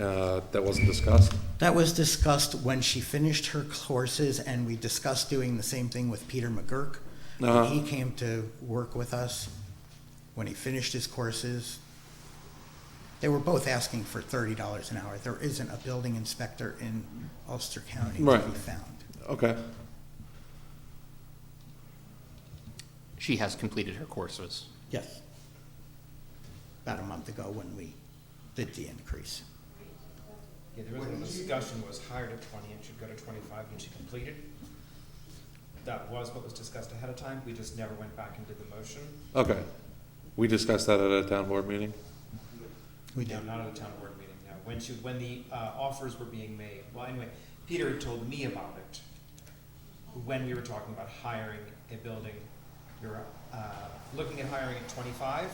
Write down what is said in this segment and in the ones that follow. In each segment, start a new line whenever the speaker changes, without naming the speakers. uh, that wasn't discussed?
That was discussed when she finished her courses, and we discussed doing the same thing with Peter McGurk.
Uh-huh.
When he came to work with us, when he finished his courses, they were both asking for thirty dollars an hour. There isn't a building inspector in Ulster County to
Right.
be found.
Okay,
She has completed her courses.
Yes. About a month ago when we did the increase.
Yeah, there was a discussion, was hired at twenty and should go to twenty-five when she completed. That was what was discussed ahead of time, we just never went back and did the motion.
okay. We discussed that at a town board meeting?
We
No,
did.
not at a town board meeting, no, when she, when the, uh, offers were being made, well, anyway, Peter had told me about it. When we were talking about hiring a building, we were, uh, looking at hiring at twenty-five,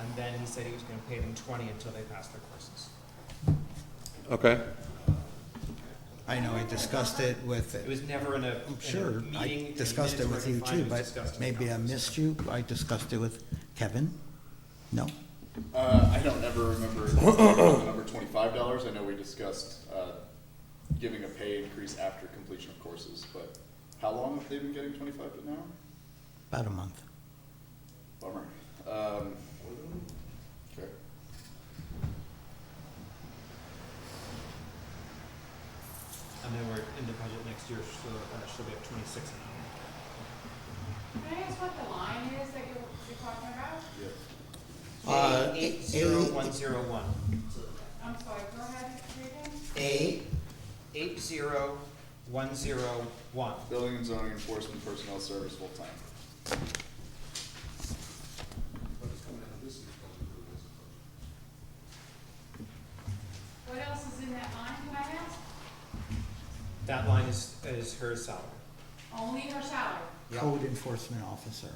and then he said he was gonna pay them twenty until they passed their courses.
Okay,
I know I discussed it with
It was never in a,
I'm
in a
sure,
meeting.
I
in the
discussed it
minutes where
with
I
you
can find
too,
it was discussed
but
in the
maybe I
conference.
missed you. I discussed it with Kevin? No?
Uh, I don't ever remember the number twenty-five dollars. I know we discussed, uh, giving a pay increase after completion of courses, but how long have they been getting twenty-five an hour?
About a month.
Bummer. Um, okay.
And then we're in the budget next year, so, uh, she'll be at twenty-six an hour.
Can I ask what the line is that you're, you're talking about?
Yes.
Uh,
Eight
eight-
zero one zero one.
I'm sorry, go ahead, reading.
A.
Eight zero one zero one.
Building and zoning enforcement personnel service full-time.
What else is in that line, can I ask?
That line is, is her salary.
Only her salary?
Code enforcement officer.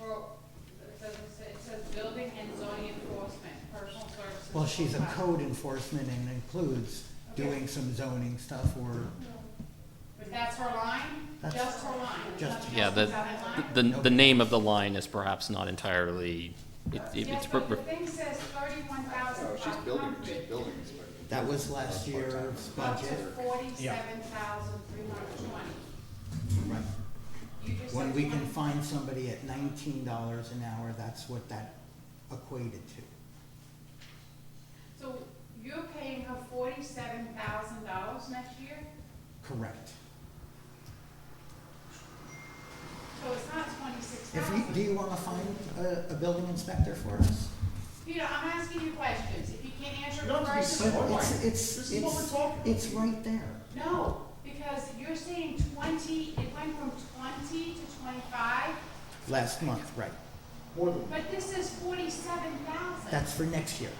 Or, it doesn't say, it says building and zoning enforcement, personal services.
Well, she's a
full-time.
code enforcement and includes doing some zoning stuff or,
But that's her line?
That's-
Just her line?
just-
Nothing
Yeah,
else
the,
is on that line?
the, the name of the line is perhaps not entirely, it, it-
Yes,
it's,
but the
per-
thing says thirty-one thousand
No,
five
Oh, she's building, she's
hundred.
building inspector.
that was last year's
Up to
budget.
forty-seven thousand three hundred twenty. You just
When
said
we can
20.
find somebody at nineteen dollars an hour, that's what that equated to.
So you're paying her forty-seven thousand dollars next year?
Correct.
So it's not
If
twenty-six
you,
thousand?
do you wanna find a, a building inspector for us?
Peter, I'm asking you questions. If you can't answer
You don't
the
have to be
question,
so-
But it's, it's,
This is what we're
it's,
talking
it's right there.
no, because you're saying twenty, it went from twenty to twenty-five,
Last month, right.
More than.
but this is forty-seven thousand.
That's for next year.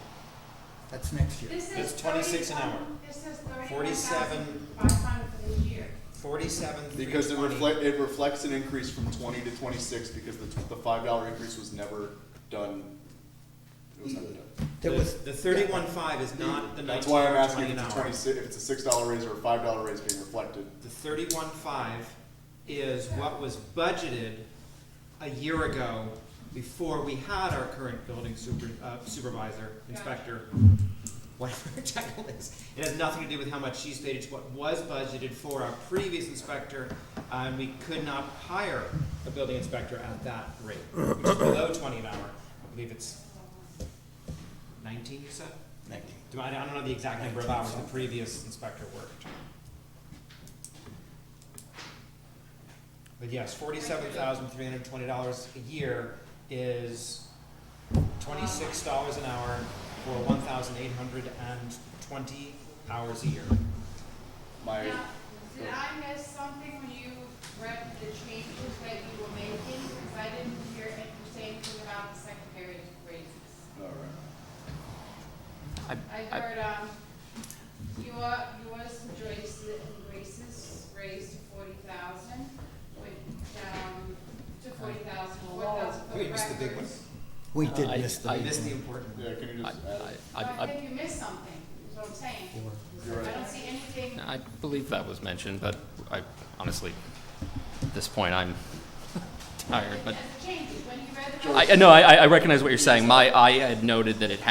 That's next year.
This is
That's 26 an hour.
$31,000 This is thirty-one
47.
thousand five hundred for the year.
Forty-seven three twenty.
Because it reflect, it reflects an increase from twenty to twenty-six because the, tw- the five dollar increase was never done. It was never done.
There was,
The thirty-one five is not the
That's
nineteen
why I'm
or
asking
twenty
if
an
it's a
hour.
twenty-six, if it's a six dollar raise or a five dollar raise being reflected.
The thirty-one five is what was budgeted a year ago before we had our current building super, uh, supervisor, inspector, whatever her title is. It has nothing to do with how much she's paid, it's what was budgeted for our previous inspector, uh, and we could not hire a building inspector at that rate, which is below twenty an hour. I believe it's nineteen, you said?
Nineteen.
Do I, I don't know the exact number of hours the previous inspector worked. But yes, forty-seven thousand three hundred twenty dollars a year is twenty-six dollars an hour for one thousand eight hundred and twenty hours a year.
My,
Now, did I miss something when you read the changes that you were making? Because I didn't hear it, you say anything about the secretary raises.
alright,
I,
I
I,
heard, um, your, yours and Joyce's raises raised to forty thousand, went down to forty thousand, four thousand for
Wait, you missed the big one.
records.
we did
Uh, I-
miss the
I-
I
big
missed the
one.
important.
yeah, can you
I,
just add?
I,
So I
I,
think you missed something, is what I'm saying.
You're
I
right.
don't see anything,
I believe that was mentioned, but I honestly, at this point, I'm tired,
as
but.
it changes, when you read the.
I, no, I, I recognize what you're saying. My, I had noted that it had